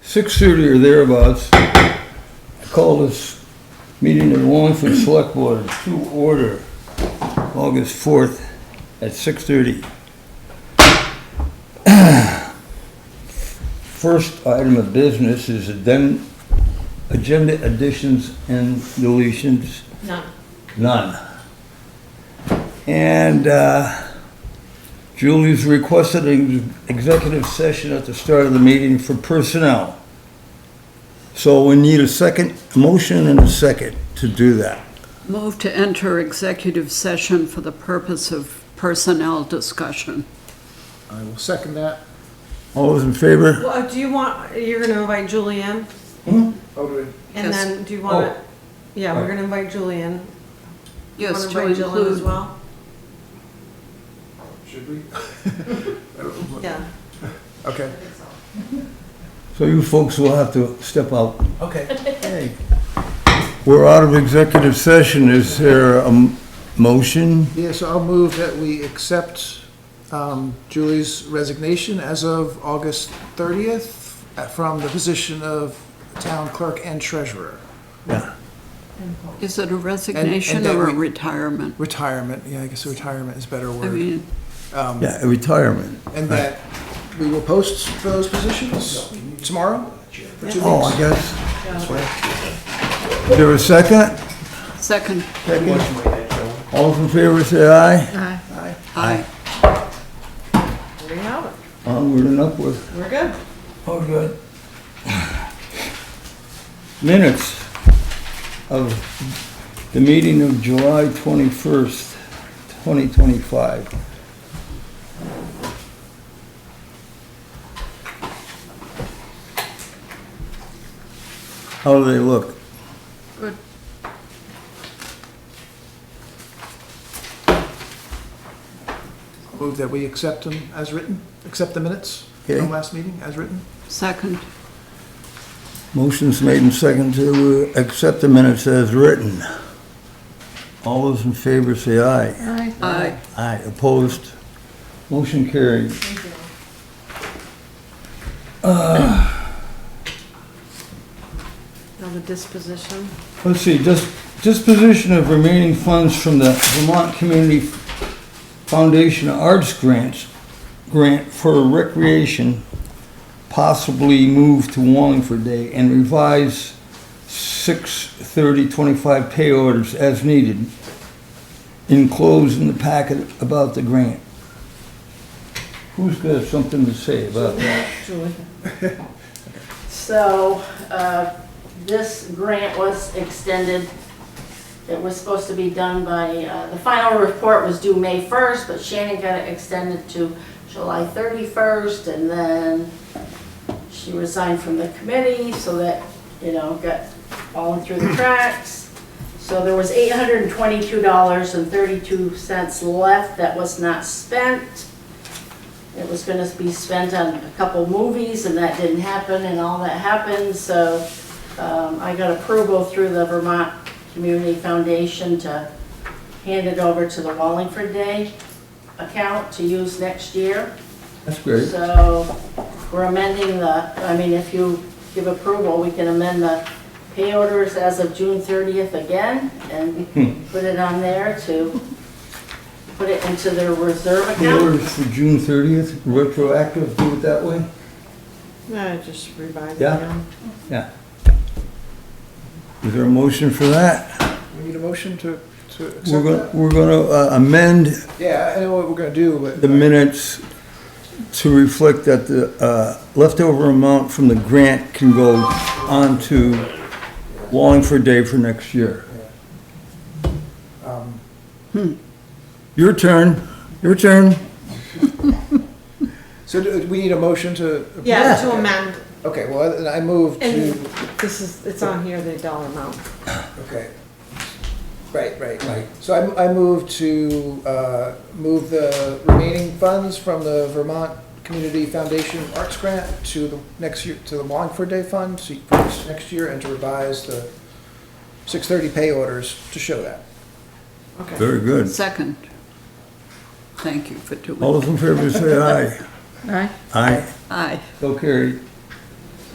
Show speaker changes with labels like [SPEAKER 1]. [SPEAKER 1] six thirty or thereabouts, I called this meeting of the Wallingford Select Board to order August fourth at six thirty. First item of business is addend- agenda additions and deletions.
[SPEAKER 2] No.
[SPEAKER 1] None. And uh, Julie's requested an executive session at the start of the meeting for personnel. So we need a second, a motion and a second to do that.
[SPEAKER 3] Move to enter executive session for the purpose of personnel discussion.
[SPEAKER 4] I will second that.
[SPEAKER 1] All those in favor?
[SPEAKER 2] Well, do you want, you're gonna invite Julianne?
[SPEAKER 4] How do
[SPEAKER 2] And
[SPEAKER 3] Yes.
[SPEAKER 2] then, do you want, yeah, we're gonna invite Julianne.
[SPEAKER 3] Yes,
[SPEAKER 2] Want
[SPEAKER 3] to
[SPEAKER 2] invite Jillian as
[SPEAKER 3] include,
[SPEAKER 2] well?
[SPEAKER 4] we, should we? I don't know.
[SPEAKER 2] Yeah.
[SPEAKER 4] Okay.
[SPEAKER 1] So you folks will have to step out.
[SPEAKER 4] Okay.
[SPEAKER 1] Hey, We're out of executive session. Is there a m- motion?
[SPEAKER 4] Yeah, so I'll move that we accept um, Julie's resignation as of August 30th uh, from the position of town clerk and treasurer.
[SPEAKER 1] Yeah.
[SPEAKER 3] is it a resignation
[SPEAKER 4] that
[SPEAKER 3] or a
[SPEAKER 4] we-
[SPEAKER 3] retirement?
[SPEAKER 4] Retirement, yeah, I guess retirement is a better
[SPEAKER 3] I
[SPEAKER 4] word.
[SPEAKER 3] mean,
[SPEAKER 1] Yeah, retirement.
[SPEAKER 4] And that we will post those positions tomorrow for two
[SPEAKER 1] Oh,
[SPEAKER 4] weeks.
[SPEAKER 1] I guess. Is there a second?
[SPEAKER 3] second,
[SPEAKER 1] All those in favor say aye.
[SPEAKER 3] aye.
[SPEAKER 2] There you have it.
[SPEAKER 1] Onward and upward.
[SPEAKER 2] We're good.
[SPEAKER 1] Oh, good. Minutes of the meeting of July 21st, 2025. How do they look?
[SPEAKER 3] Good.
[SPEAKER 4] Move that we accept them as written, accept the minutes
[SPEAKER 1] Okay.
[SPEAKER 4] from last meeting as written.
[SPEAKER 3] Second,
[SPEAKER 1] Motion's made and seconded to accept the minutes as written. All those in favor say aye.
[SPEAKER 3] aye.
[SPEAKER 1] Aye, opposed. Motion carried.
[SPEAKER 2] Now the disposition.
[SPEAKER 1] Let's see, dis- disposition of remaining funds from the Vermont Community Foundation Arts Grants, grant for recreation, possibly move to Wallingford Day and revise 6/30/25 pay orders as needed. Enclosed in the packet about the grant. Who's got something to say about that?
[SPEAKER 2] Julie.
[SPEAKER 5] So, uh, this grant was extended. It was supposed to be done by, uh, the final report was due May 1st, but Shannon got it extended to July 31st, and then she resigned from the committee, so that, you know, got fallen through the cracks. So there was $822.32 left that was not spent. It was gonna be spent on a couple movies, and that didn't happen, and all that happened, so um, I got approval through the Vermont Community Foundation to hand it over to the Wallingford Day account to use next year.
[SPEAKER 1] That's great.
[SPEAKER 5] So we're amending the, I mean, if you give approval, we can amend the pay orders as of June 30th again and put it on there to put it into their reserve
[SPEAKER 1] Pay
[SPEAKER 5] account.
[SPEAKER 1] orders for June 30th, retroactive, do it that way?
[SPEAKER 2] No, just revise it
[SPEAKER 1] Yeah.
[SPEAKER 2] down.
[SPEAKER 1] Yeah. Is there a motion for that?
[SPEAKER 4] We need a motion to, to accept
[SPEAKER 1] We're
[SPEAKER 4] that?
[SPEAKER 1] gonna, we're gonna uh, amend
[SPEAKER 4] Yeah, I know what we're gonna do, but.
[SPEAKER 1] the minutes to reflect that the uh, leftover amount from the grant can go on to Wallingford Day for next year. Your turn, your turn.
[SPEAKER 4] So do we need a motion to?
[SPEAKER 2] Yeah, to amend.
[SPEAKER 4] Okay, well, then I move
[SPEAKER 2] And
[SPEAKER 4] to,
[SPEAKER 2] this is, it's on here, the dollar amount.
[SPEAKER 4] okay. Right, right, right. So I, I move to, uh, move the remaining funds from the Vermont Community Foundation Arts Grant to the next year, to the Wallingford Day Fund, so you- for next year, and to revise the six thirty pay orders to show that.
[SPEAKER 2] Okay.
[SPEAKER 1] Very good.
[SPEAKER 3] Second. Thank you for
[SPEAKER 1] All
[SPEAKER 3] doing it.
[SPEAKER 1] those in favor say aye.
[SPEAKER 2] All right.
[SPEAKER 1] Aye.
[SPEAKER 3] Aye.
[SPEAKER 1] So carried.